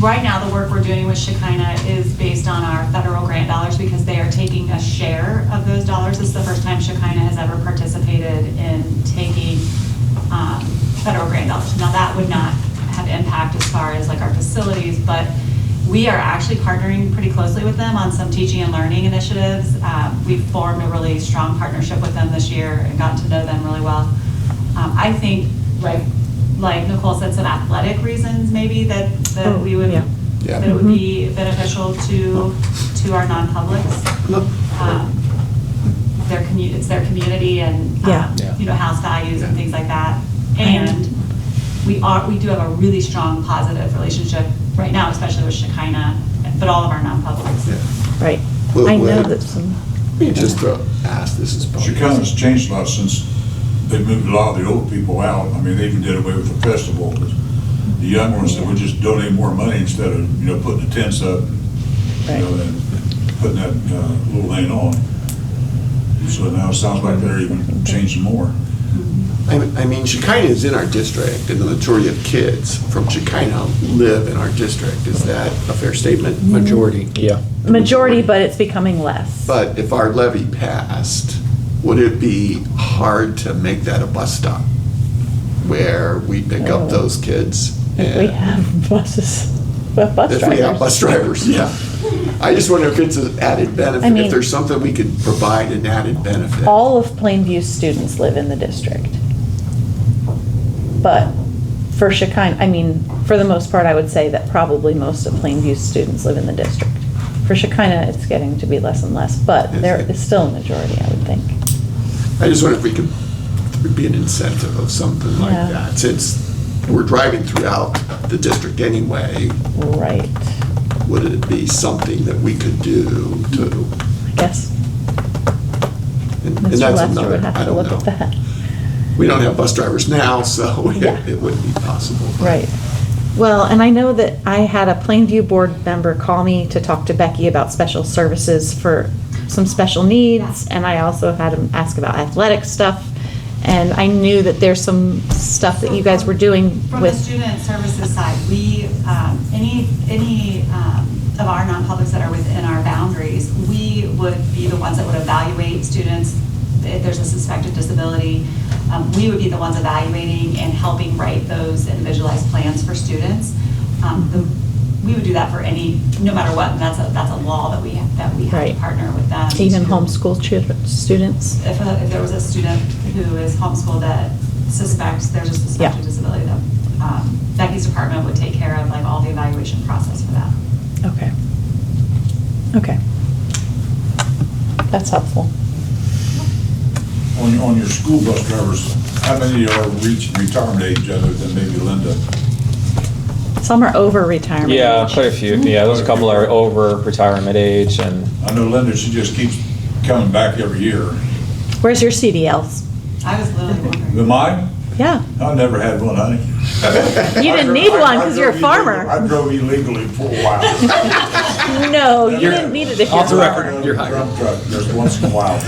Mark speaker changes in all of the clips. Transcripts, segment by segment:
Speaker 1: right now, the work we're doing with Shekinah is based on our federal grant dollars because they are taking a share of those dollars. This is the first time Shekinah has ever participated in taking um, federal grant dollars. Now, that would not have impact as far as like our facilities, but we are actually partnering pretty closely with them on some teaching and learning initiatives. Um, We've formed a really strong partnership with them this year and gotten to know them really well. Um, I think, like, like Nicole said, some athletic reasons maybe that, that
Speaker 2: Oh,
Speaker 1: we would,
Speaker 2: yeah. Mm-hmm.
Speaker 3: Yeah.
Speaker 1: that it would be beneficial to, to our non-publics. Um, Their commu, it's their community and, um,
Speaker 2: Yeah.
Speaker 3: Yeah.
Speaker 1: you know, house values and
Speaker 3: Yeah.
Speaker 1: things like that.
Speaker 2: Right.
Speaker 1: And we are, we do have a really strong positive relationship right now, especially with Shekinah, but all of our non-publics.
Speaker 3: Yeah.
Speaker 2: Right.
Speaker 3: Well,
Speaker 2: I know
Speaker 3: well-
Speaker 2: that some,
Speaker 3: We just throw, ask, this is probably.
Speaker 4: Chicago's changed a lot since they moved a lot of the old people out. I mean, they even did away with the festival, 'cause the young ones, that would just donate more money instead of, you know, putting the tents up, you know, and putting that uh, little thing on. So now it sounds like they're even changing more.
Speaker 3: I I mean, Shekinah is in our district, and the majority of kids from Shekinah live in our district. Is that a fair statement? Majority.
Speaker 5: Yeah.
Speaker 2: majority, but it's becoming less.
Speaker 3: But if our levy passed, would it be hard to make that a bus stop where we pick up those kids?
Speaker 2: Oh. If we
Speaker 3: and-
Speaker 2: have buses, bus drivers.
Speaker 3: If we have bus drivers, yeah. I just wonder if it's an added
Speaker 2: I
Speaker 3: benefit,
Speaker 2: mean-
Speaker 3: if there's something we could provide an added benefit.
Speaker 2: All of Plainview's students live in the district. But for Shekinah, I mean, for the most part, I would say that probably most of Plainview's students live in the district. For Shekinah, it's getting to be less and less, but there is still a majority, I would think.
Speaker 3: I just wonder if we could, there'd be an incentive of something like
Speaker 2: Yeah.
Speaker 3: that, since we're driving throughout the district anyway,
Speaker 2: Right,
Speaker 3: would it be something that we could do to?
Speaker 2: I guess.
Speaker 3: and- and
Speaker 2: Mr.
Speaker 3: that's
Speaker 2: Lester would
Speaker 3: another- I
Speaker 2: have to
Speaker 3: don't
Speaker 2: look at
Speaker 3: know.
Speaker 2: that.
Speaker 3: We don't have bus drivers now, so
Speaker 2: Yeah.
Speaker 3: it wouldn't be possible. but-
Speaker 2: Right. Well, and I know that I had a Plainview board member call me to talk to Becky about special services for some special needs, and I also had him ask about athletic stuff. And I knew that there's some stuff that you guys were doing
Speaker 1: From the
Speaker 2: with,
Speaker 1: student services side, we, um, any, any um, of our non-publics that are within our boundaries, we would be the ones that would evaluate students, if there's a suspected disability, um, we would be the ones evaluating and helping write those individualized plans for students. Um, the- We would do that for any, no matter what, and that's a, that's a law that we, that we have to
Speaker 2: Right.
Speaker 1: partner with them.
Speaker 2: even
Speaker 1: to-
Speaker 2: homeschool children, students.
Speaker 1: If, a- if there was a student who is homeschooled that suspects there's a suspected
Speaker 2: Yeah.
Speaker 1: disability, that um, Becky's department would take care of like all the evaluation process for that.
Speaker 2: Okay. Okay. That's helpful.
Speaker 4: On, on your school bus drivers, how many are reached retirement age other than maybe Linda?
Speaker 2: Some are over retirement.
Speaker 5: Yeah,
Speaker 2: age.
Speaker 5: quite a few. Yeah, there's a couple are over retirement age and
Speaker 4: I know Linda, she just keeps coming back every year.
Speaker 2: Where's your CDLs?
Speaker 1: I was literally
Speaker 4: The
Speaker 1: wondering.
Speaker 4: mine?
Speaker 2: Yeah.
Speaker 4: I never had one, honey.
Speaker 2: You didn't need one 'cause you're a farmer.
Speaker 4: I drove illegally for a while.
Speaker 2: No, Oh, you didn't need it if you're.
Speaker 5: Off the record.
Speaker 3: you're hired.
Speaker 4: Dump truck, just once in a while,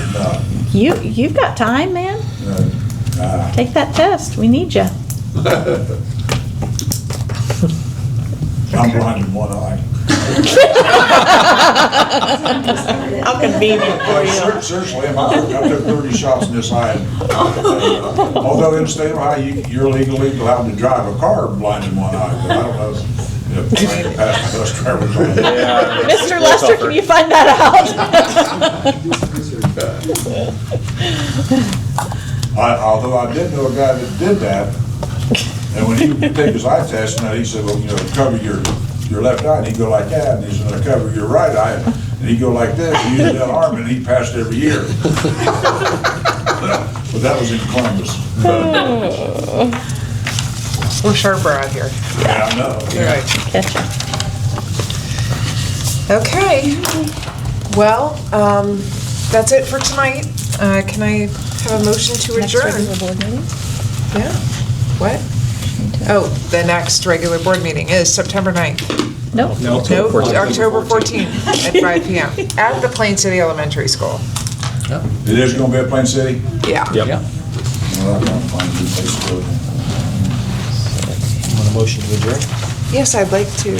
Speaker 2: You, you've got time, man.
Speaker 4: but, uh, uh,
Speaker 2: Take that test. We need you.
Speaker 4: I'm blind in one eye.
Speaker 2: How convenient for
Speaker 4: Like, ser-
Speaker 2: you.
Speaker 4: Seriously, am I, I took thirty shots in this eye. Although in the state of Ohio, you, you're legally allowed to drive a car blind in one eye, but I don't know if, if past the bus drivers on that.
Speaker 2: Mr. Uh, Lester, can you find that out?
Speaker 4: I, although I did know a guy that did that, and when he would take his eye test, and he said, well, you know, cover your, your left eye, and he'd go like that, and he said, "Now cover your right eye, and he'd go like this, and use that arm, and he passed every year. But that was in Columbus.
Speaker 6: We're sharper out here.
Speaker 4: Yeah, I know.
Speaker 6: Right.
Speaker 2: Gotcha.
Speaker 6: Okay. Well, um, that's it for tonight. Uh, can I have a motion to
Speaker 2: Next
Speaker 6: adjourn?
Speaker 2: regular board meeting?
Speaker 6: Yeah. What? Oh, the next regular board meeting is September 9th.
Speaker 2: Nope.
Speaker 6: No, October 14th at 5 PM at the Plain City Elementary School.
Speaker 4: It is gonna be at Plain City?
Speaker 6: Yeah.
Speaker 5: Yep.
Speaker 4: Well, I'm gonna find a new place to go.
Speaker 5: Want a motion to adjourn?
Speaker 6: Yes, I'd like to